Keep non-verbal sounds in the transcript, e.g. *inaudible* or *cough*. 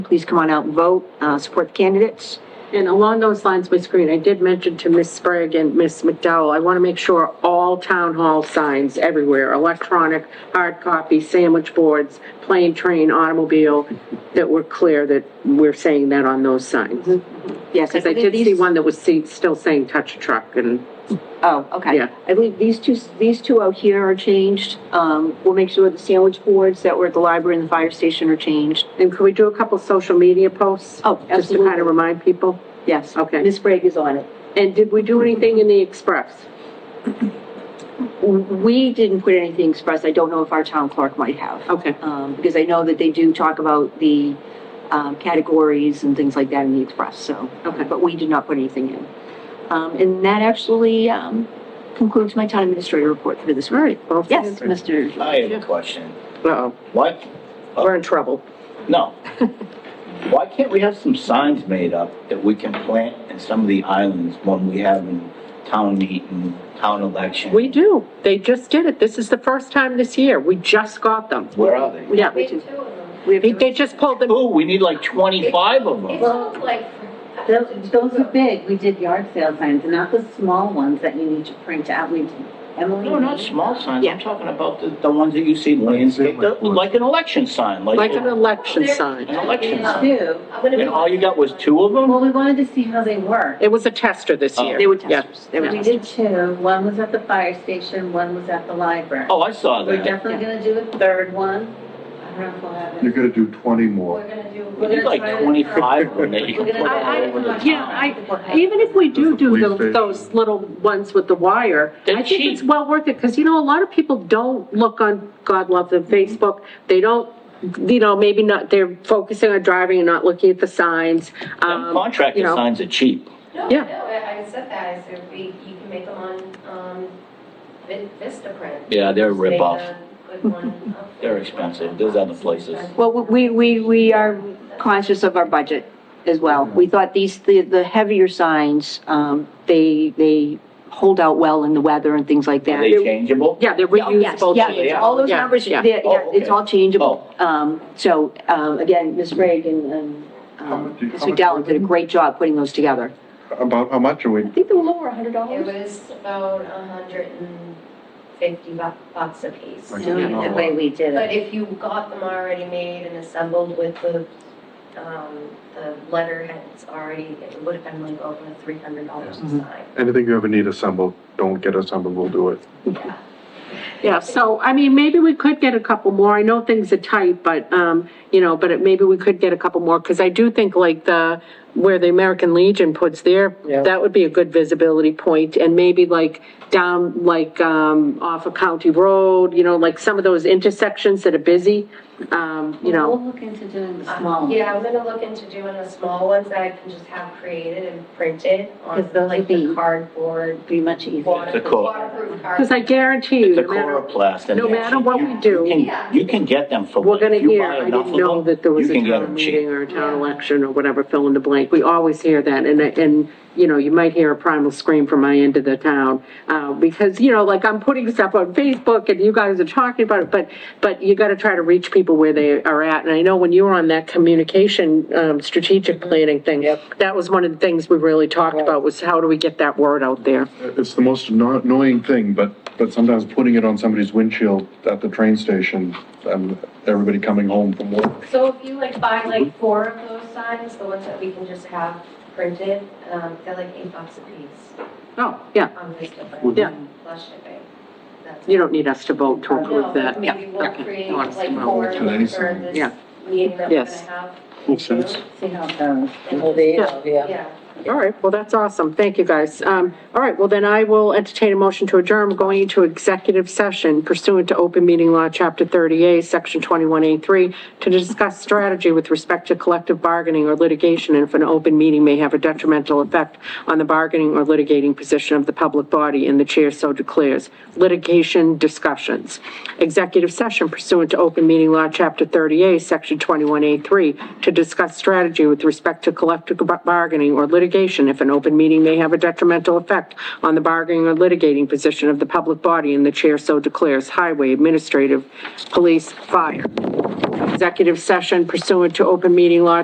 Please come on out and vote, uh, support the candidates. And along those lines, Ms. Green, I did mention to Ms. Sprague and Ms. McDowell, I want to make sure all town hall signs everywhere, electronic, hard copy, sandwich boards, plane, train, automobile, that we're clear that we're saying that on those signs. Yes, Because I believe did see these- one that was see- still saying touch a truck and, Oh, okay. Yeah. I believe these two, these two out here are changed. Um, we'll make sure the sandwich boards that were at the library and the fire station are changed. and could we do a couple social media posts? Oh, Just to kind absolutely. of remind people? Yes. Okay. Ms. Sprague is on it. And did we do anything in the express? We didn't put anything express. I don't know if our town clerk might have. Okay, Um, because I know that they do talk about the, um, categories and things like that in the express, so. okay. But we did not put anything in. Um, and that actually, um, concludes my town administrator report for this All week. right. well, Yes, Mr. I have a question. Uh-oh, Why, we're in trouble. no. Why can't we have some signs made up that we can plant in some of the islands when we have in town meeting, town election? We do. They just did it. This is the first time this year. We just got them. Where are they? Yeah, We have two of them. We have they they just pulled them. Oh, we need like twenty-five of It them. took like. Those, those are big, we did yard sale signs, not the small ones that you need to print out, we, Emily. No, not small signs, Yeah. I'm talking about the, the ones that you see landscaped, that look like an election sign, like. Like an election An sign. election sign. Two, I'm gonna be- And all you got was two of them? well, we wanted to see how they were. It was a tester this Oh. year. They were Yeah. testers. They were We testers. did two, one was at the fire station, one was at the library. Oh, I saw We're that. definitely gonna do a third one, I don't know if we'll have You're it. gonna do twenty We're more. gonna do. We need like twenty-five of them that you can We're put gonna- all I- over the I- town. yeah, I- Even if we do do There's a the- police those station. little ones with the wire, They're I think it's cheap. well worth it, because you know, a lot of people don't look on, God love them, Mm-hmm. Facebook. They don't, you know, maybe not, they're focusing on driving and not looking at the signs. Them Um, you Contractor know. signs are cheap. No, Yeah. no, I, I said that, I said we, you can make them on, um, Vi- Vistaprint. Yeah, they're a Just make rip-off. a good one up. *laughs* They're expensive. There's other places. Well, we, we, we are conscious of our budget as well. We thought these, the, the heavier signs, um, they, they hold out well in the weather and things like Are that. they changeable? Yeah, they're Oh, yes, reusable. yeah, too. All those Yeah, numbers, yeah. they're- yeah, it's all changeable. Oh, Um, so, um, again, Ms. Reagan and, and, How um, much- how Ms. much McDowell was did a it? great job putting those together. About how much are we? I think they were lower, a hundred It dollars. was about a hundred and fifty bu- bucks a piece. Like, Doing it the way we did But it. if you got them already made and assembled with the, um, the letterheads already, it would have been like over three hundred dollars a sign. Anything you ever need assembled, don't get assembled, we'll do it. Yeah. Yeah, so, I mean, maybe we could get a couple more. I know things are tight, but, um, you know, but it- maybe we could get a couple more, because I do think like the, where the American Legion puts their, that would be a good visibility point, and maybe like down, like, um, off of County Road, you know, like some of those intersections that are busy, um, you know. We'll look into doing the small ones. Uh, Yeah, I'm gonna look into doing the small ones that I can just have created and printed on Because those like would the be- cardboard, Be much easier. It's a waterproof cor- waterproof cardboard. Because I guarantee you, it's a no matter, coroplast. and no they're matter cheap. what You- we do- You Yeah. can, you can get them for. we're gonna if you hear, buy I enough didn't of know them, that there was you a can get town them meeting cheap. or a town Yeah. election or whatever, fill in the blank. We always hear that, and, and, you know, you might hear a primal scream from my end of the town, uh, because, you know, like, I'm putting stuff on Facebook, and you guys are talking about it, but, but you gotta try to reach people where they are at, and I know when you were on that communication, um, strategic planning thing, that was one of the things we really talked about, was how do we get that word out there? It's the most anno- annoying thing, but, but sometimes putting it on somebody's windshield at the train station, and everybody coming home from work. So if you like buy like four of those signs, the ones that we can just have printed, um, they're like eight bucks a piece Oh, yeah, on this different. Would- Yeah. Plus shipping. That's- you don't need us to vote to No, approve but that. maybe we'll okay. create No, it's like tomorrow. four for Today's this sign. Yeah. meeting that we're gonna Yes. have. Makes sense. See how it goes. Yeah. All right, well, that's awesome. Thank you, guys. Um, all right, well, then I will entertain a motion to adjourn. We're going into executive session pursuant to open meeting law, chapter 30A, section 21A3, to discuss strategy with respect to collective bargaining or litigation, and if an open meeting may have a detrimental effect on the bargaining or litigating position of the public body, and the chair so declares. Litigation discussions. Executive session pursuant to open meeting law, chapter 30A, section 21A3, to discuss strategy with respect to collective bar- bargaining or litigation if an open meeting may have a detrimental effect on the bargaining or litigating position of the public body, and the chair so declares. Highway, administrative, police, fire. Executive session pursuant to open meeting law,